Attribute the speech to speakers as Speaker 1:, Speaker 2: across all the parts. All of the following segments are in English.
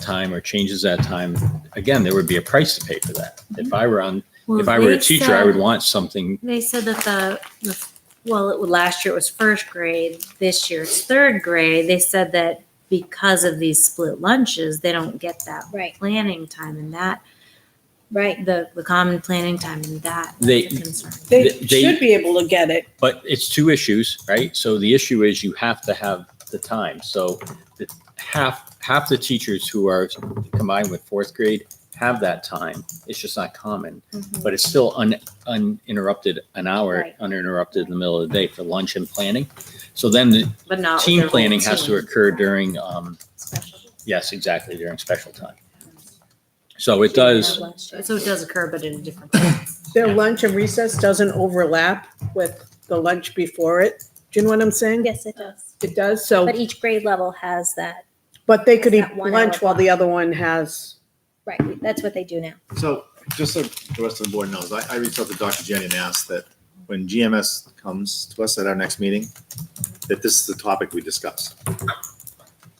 Speaker 1: time or changes that time, again, there would be a price to pay for that. If I were on,
Speaker 2: Mm-hmm. Well,
Speaker 1: if I were
Speaker 2: they
Speaker 1: a teacher, I would
Speaker 2: said-
Speaker 1: want something,
Speaker 2: They said that the, the- well, it, last year it was first grade, this year it's third grade. They said that because of these split lunches, they don't get that
Speaker 3: Right,
Speaker 2: planning time and that,
Speaker 3: right.
Speaker 2: the, the common planning time and that. is
Speaker 1: They-
Speaker 2: a concern.
Speaker 4: They
Speaker 1: Th- they-
Speaker 4: should be able to get it.
Speaker 1: but it's two issues, right? So the issue is you have to have the time. So the- half, half the teachers who are combined with fourth grade have that time. It's just not common,
Speaker 2: Mm-hmm.
Speaker 1: but it's still un, uninterrupted, an hour
Speaker 3: Right.
Speaker 1: uninterrupted in the middle of the day for lunch and planning. So then the
Speaker 2: But not. with their
Speaker 1: team
Speaker 2: whole
Speaker 1: planning has to
Speaker 2: team.
Speaker 1: occur during, um, yes, exactly, during special time. So it does,
Speaker 2: So it does occur, but in a different.
Speaker 4: Their lunch and recess doesn't overlap with the lunch before it. Do you know what I'm saying?
Speaker 3: Yes, it does.
Speaker 4: It does, so,
Speaker 3: But each grade level has that,
Speaker 4: but they could eat
Speaker 3: That one hour
Speaker 4: lunch while the other one has.
Speaker 3: right, that's what they do now.
Speaker 5: So just so the rest of the board knows, I, I reached out to Dr. Jenny and asked that when GMS comes to us at our next meeting, that this is the topic we discuss.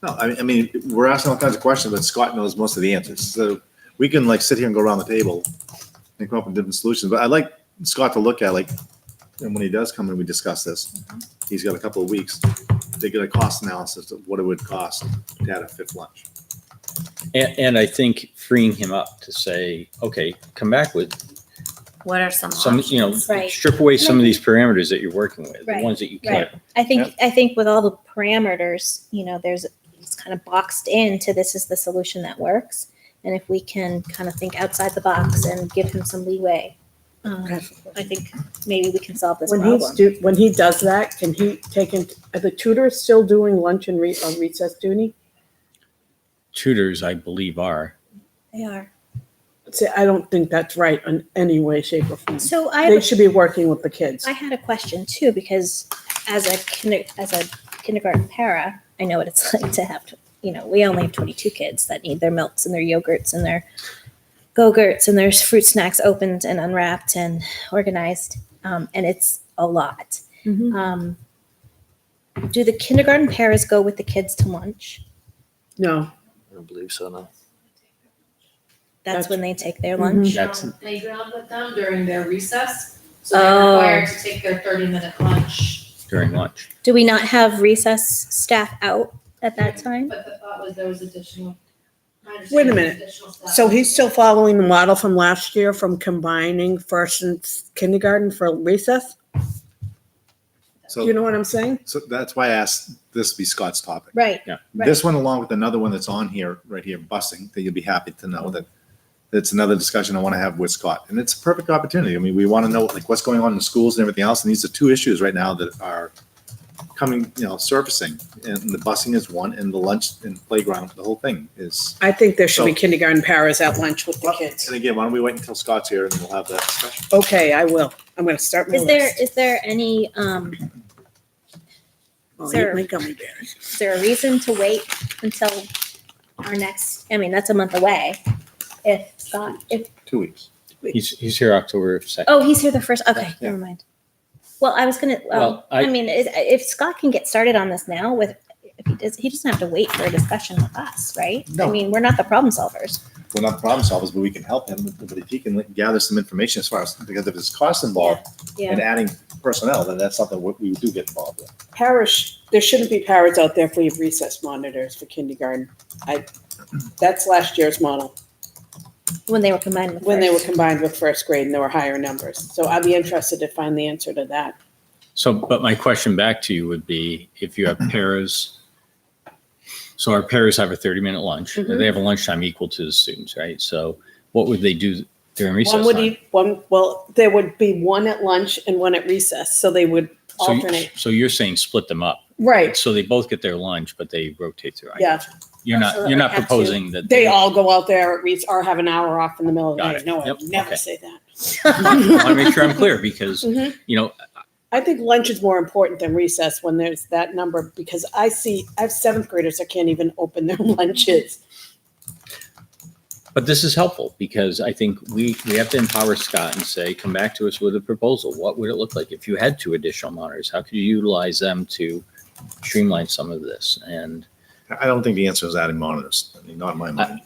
Speaker 5: No, I, I mean, we're asking all kinds of questions, but Scott knows most of the answers. So we can like sit here and go around the table and come up with different solutions, but I'd like Scott to look at like, and when he does come and we discuss this,
Speaker 4: Mm-hmm.
Speaker 5: he's got a couple of weeks, they get a cost analysis of what it would cost to add a fifth lunch.
Speaker 1: and, and I think freeing him up to say, okay, come back with
Speaker 2: What are some
Speaker 1: some,
Speaker 2: options?
Speaker 1: you know,
Speaker 3: Right.
Speaker 1: strip away some of these parameters that you're working with, the
Speaker 3: Right,
Speaker 1: ones that you can't.
Speaker 3: I think, I think with all the parameters, you know, there's, it's kind of boxed into this is the solution that works. And if we can kind of think outside the box and give him some leeway, um, I think maybe we can solve this
Speaker 4: When he's
Speaker 3: problem.
Speaker 4: do, when he does that, can he take in, are the tutors still doing lunch and re, on recess duty?
Speaker 1: Tutors, I believe, are.
Speaker 3: They are.
Speaker 4: See, I don't think that's right in any way, shape or form.
Speaker 3: So I. have a-
Speaker 4: They should be working with the kids.
Speaker 3: I had a question too because as a kinder, as a kindergarten para, I know what it's like to have you know we only have twenty two kids that need their milks and their yogurts and their go-gurts and their fruit snacks opened and unwrapped and organized, um, and it's a lot.
Speaker 2: Mhm.
Speaker 3: Um, do the kindergarten paras go with the kids to lunch?
Speaker 4: No,
Speaker 6: I don't believe so, no.
Speaker 4: That's-
Speaker 3: That's when they take their
Speaker 4: Mhm.
Speaker 3: lunch.
Speaker 1: That's-
Speaker 7: um, playground with them during their recess. So
Speaker 4: Oh.
Speaker 7: they're required to take their thirty minute lunch.
Speaker 1: during lunch.
Speaker 3: Do we not have recess staff out at that time?
Speaker 7: But the thought was there was additional. my
Speaker 4: Wait a
Speaker 7: understanding was
Speaker 4: minute.
Speaker 7: additional staff.
Speaker 4: so he's still following the model from last year from combining first and kindergarten for recess?
Speaker 5: So.
Speaker 4: Do you know what I'm saying?
Speaker 5: So that's why I asked this be Scott's topic.
Speaker 3: Right. Right.
Speaker 5: This one along with another one that's on here, right here, busing, that you'll be happy to know that that's another discussion I want to have with Scott. And it's a perfect opportunity. I mean, we want to know like what's going on in the schools and everything else. And these are two issues right now that are coming, you know, surfacing. And the busing is one and the lunch and playground, the whole thing is.
Speaker 4: I think there should be
Speaker 5: So-
Speaker 4: kindergarten paras at lunch with the kids.
Speaker 5: And again, why don't we wait until Scott's here and we'll have that discussion?
Speaker 4: Okay, I will. I'm gonna start my
Speaker 3: Is there
Speaker 4: list.
Speaker 3: is there any um,
Speaker 4: Oh,
Speaker 3: there-
Speaker 4: eat my gummy bears.
Speaker 3: Is there a reason to wait until our next, I mean, that's a month away. If Scott, if,
Speaker 5: Two weeks.
Speaker 1: He's, he's here October 2nd.
Speaker 3: oh, he's here the first, okay,
Speaker 5: Yeah.
Speaker 3: never mind. Well, I was gonna, well,
Speaker 1: Well, I-
Speaker 3: I mean, is- if Scott can get started on this now with, if he does, he doesn't have to wait for a discussion with us, right? I
Speaker 5: No.
Speaker 3: mean, we're not the problem solvers.
Speaker 5: We're not problem solvers, but we can help him. But if he can gather some information as far as, because if there's cost involved, and adding personnel, then that's something we, we do get involved with.
Speaker 4: Parish, there shouldn't be paras out there if we have recess monitors for kindergarten. I, that's last year's model,
Speaker 3: When they were combined with
Speaker 4: when they were
Speaker 3: first.
Speaker 4: combined with first grade and there were higher numbers. So I'd be interested to find the answer to that.
Speaker 1: So, but my question back to you would be if you have paras, so our paras have a 30 minute lunch.
Speaker 4: Mhm.
Speaker 3: Mm-hmm.
Speaker 1: They have a lunchtime equal to the students, right? So what would they do during
Speaker 4: One
Speaker 1: recess
Speaker 4: would
Speaker 1: time?
Speaker 4: eat, one, well, there would be one at lunch and one at recess, so they would
Speaker 1: So you-
Speaker 4: alternate.
Speaker 1: So you're saying split them up.
Speaker 4: Right,
Speaker 1: So they both get their lunch, but they rotate through.
Speaker 4: yeah.
Speaker 1: You're not, you're
Speaker 3: Absolutely.
Speaker 1: not
Speaker 3: Have to.
Speaker 1: proposing that.
Speaker 4: They all go out there at rec, or have an hour off in the middle of the
Speaker 1: Got
Speaker 4: day.
Speaker 1: it.
Speaker 4: No, I
Speaker 1: Yep,
Speaker 4: would never
Speaker 1: okay.
Speaker 4: say that.
Speaker 1: I want to make sure I'm clear because,
Speaker 4: Mhm.
Speaker 1: you know,
Speaker 4: I think lunch is more important than recess when there's that number because I see, I have seventh graders that can't even open their lunches.
Speaker 1: But this is helpful because I think we, we have to empower Scott and say, come back to us with a proposal. What would it look like if you had two additional monitors? How could you utilize them to streamline some of this? And
Speaker 5: I don't think the answer is adding monitors, I mean, not in my mind.